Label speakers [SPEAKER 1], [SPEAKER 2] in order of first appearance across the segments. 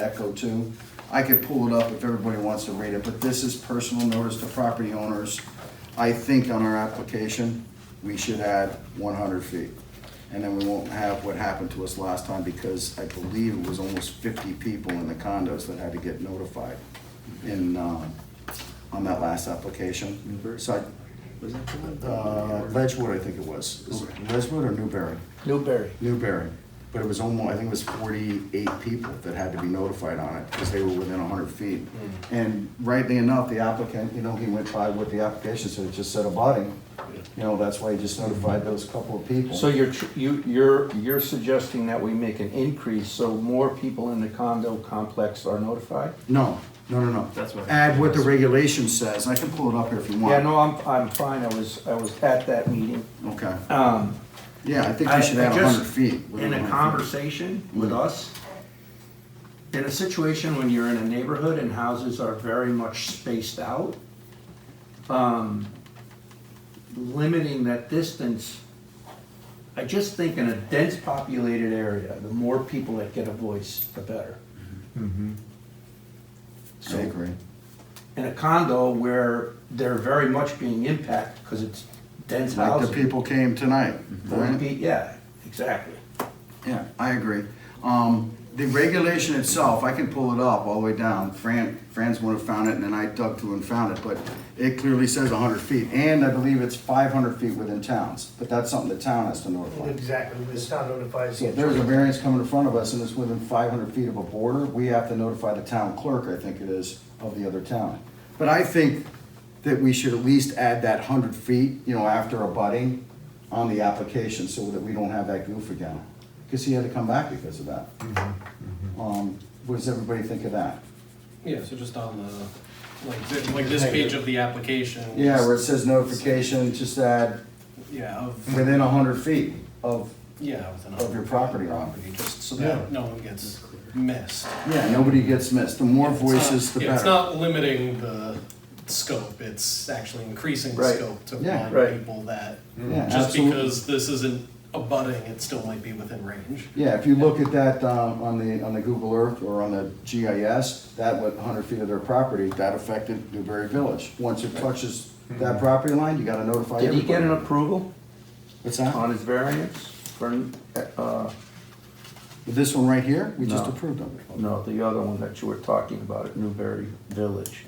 [SPEAKER 1] Echo too. I could pull it up if everybody wants to read it, but this is personal notice to property owners. I think on our application, we should add one hundred feet. And then we won't have what happened to us last time because I believe it was almost fifty people in the condos that had to get notified in, um, on that last application.
[SPEAKER 2] Newbury?
[SPEAKER 1] So
[SPEAKER 2] Was that the
[SPEAKER 1] I,
[SPEAKER 2] one?
[SPEAKER 1] uh, Ledgewood, I think it was. Is it Ledgewood or Newberry?
[SPEAKER 3] Newberry.
[SPEAKER 1] Newberry, but it was almost, I think it was forty-eight people that had to be notified on it, because they were within hundred feet.
[SPEAKER 2] Hmm.
[SPEAKER 1] And rightly enough, the applicant, you know, he went by what the application said, it just said abutting. You know, that's why he just notified those couple of people.
[SPEAKER 3] So you're, tr- you, you're, you're suggesting that we make an increase so more people in the condo complex are notified?
[SPEAKER 1] No, no, no, no.
[SPEAKER 2] That's what-
[SPEAKER 1] Add what the regulation says, I can pull it up here if you want.
[SPEAKER 3] Yeah, no, I'm, I'm fine, I was, I was at that meeting.
[SPEAKER 1] Okay,
[SPEAKER 3] Um,
[SPEAKER 1] yeah, I think
[SPEAKER 4] I-
[SPEAKER 1] we should
[SPEAKER 4] I
[SPEAKER 1] add
[SPEAKER 4] just-
[SPEAKER 1] hundred feet.
[SPEAKER 4] in
[SPEAKER 1] 100
[SPEAKER 4] a
[SPEAKER 1] feet.
[SPEAKER 4] conversation with
[SPEAKER 1] Mm.
[SPEAKER 4] us, in a situation when you're in a neighborhood and houses are very much spaced out, um, limiting that distance, I just think in a dense populated area, the more people that get a voice, the better.
[SPEAKER 1] I agree.
[SPEAKER 4] In a condo where they're very much being impacted because it's dense
[SPEAKER 1] Like the
[SPEAKER 4] housing. Mhm.
[SPEAKER 1] people came tonight,
[SPEAKER 4] Forty
[SPEAKER 1] right?
[SPEAKER 4] feet, Yeah, exactly.
[SPEAKER 1] Yeah, I agree. Um, the regulation itself, I can pull it up all the way down. Fran, Fran's one who found it, and then I dug through and found it, but it clearly says hundred feet, and I believe it's five hundred feet within towns, but that's something the town has to notify.
[SPEAKER 5] Exactly, the town notifies
[SPEAKER 1] So
[SPEAKER 5] you.
[SPEAKER 1] if there's a variance coming in front of us and it's within five hundred feet of a border, we have to notify the town clerk, I think it is, of the other town. But I think that we should at least add that hundred feet, you know, after abutting on the application so that we don't have that goof again. Cause he had to come back because of that. Um, what does everybody think of that?
[SPEAKER 6] Yeah, so just on the, like, thi- like this page of the application.
[SPEAKER 1] Yeah, where it says notification, just add
[SPEAKER 6] Yeah, of,
[SPEAKER 1] within hundred feet of,
[SPEAKER 6] yeah.
[SPEAKER 1] Hmm.
[SPEAKER 6] within a
[SPEAKER 1] Of your
[SPEAKER 6] hundred
[SPEAKER 1] property
[SPEAKER 6] feet
[SPEAKER 1] line.
[SPEAKER 6] property, Just so
[SPEAKER 1] Yeah.
[SPEAKER 6] that no one gets missed.
[SPEAKER 1] yeah, nobody gets missed. The more
[SPEAKER 6] It's not-
[SPEAKER 1] voices, the
[SPEAKER 6] yeah, It's
[SPEAKER 1] better.
[SPEAKER 6] not limiting the scope, it's actually increasing the
[SPEAKER 3] Right.
[SPEAKER 6] scope to
[SPEAKER 1] Yeah.
[SPEAKER 3] Right.
[SPEAKER 6] blind people that,
[SPEAKER 1] Yeah,
[SPEAKER 6] just
[SPEAKER 1] absolutely.
[SPEAKER 6] because this isn't abutting, it still might be within range.
[SPEAKER 1] Yeah, if you look at that um, on the, on the Google Earth or on the GIS, that went 100 feet of their property, that affected Newberry Village. Once it touches that property line, you gotta notify
[SPEAKER 3] did
[SPEAKER 1] everybody.
[SPEAKER 3] he get an approval
[SPEAKER 1] What's that?
[SPEAKER 3] on his variance for, uh,
[SPEAKER 1] This one right here, we just
[SPEAKER 3] No.
[SPEAKER 1] approved of it.
[SPEAKER 3] no, the other one that you were talking about at Newberry Village?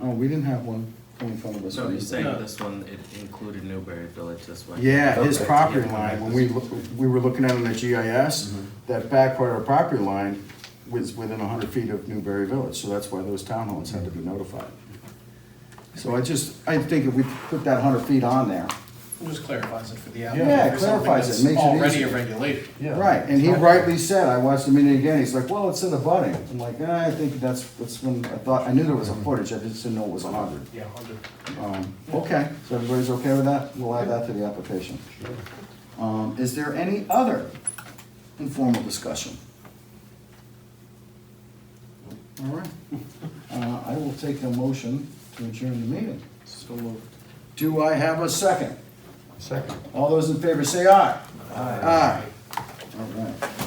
[SPEAKER 1] Oh, we didn't have one coming in front of us.
[SPEAKER 7] So you're saying
[SPEAKER 6] No.
[SPEAKER 7] this one, it included Newberry Village, this one?
[SPEAKER 1] Yeah, his
[SPEAKER 3] Okay.
[SPEAKER 1] property
[SPEAKER 7] Yeah.
[SPEAKER 1] line, when we, look- we were looking at it on the GIS, that back part of the property line was within 100 feet of Newberry Village, so that's why those townhomes had to be notified. So I just, I think if we put that 100 feet on there,
[SPEAKER 6] It Just clarifies it for the
[SPEAKER 1] Yeah,
[SPEAKER 6] applicant, for something
[SPEAKER 1] clarifies it,
[SPEAKER 6] that's
[SPEAKER 1] makes it
[SPEAKER 6] already
[SPEAKER 1] easier.
[SPEAKER 6] a regulation.
[SPEAKER 1] Right, and he rightly said, I watched the meeting again, he's like, well, it's in the budding. I'm like, "Ah, I think that's, that's when, I thought, I knew there was a footage, I just didn't know it was a hundred.
[SPEAKER 6] Yeah, hundred.
[SPEAKER 1] Um, okay, so everybody's okay with that? We'll add that to the application. Um, is there any other informal discussion? All right, uh, I will take a motion to adjourn the meeting.
[SPEAKER 6] So moved.
[SPEAKER 1] Do I have a second?
[SPEAKER 5] Second.
[SPEAKER 1] All those in favor say aye. Aye. All right.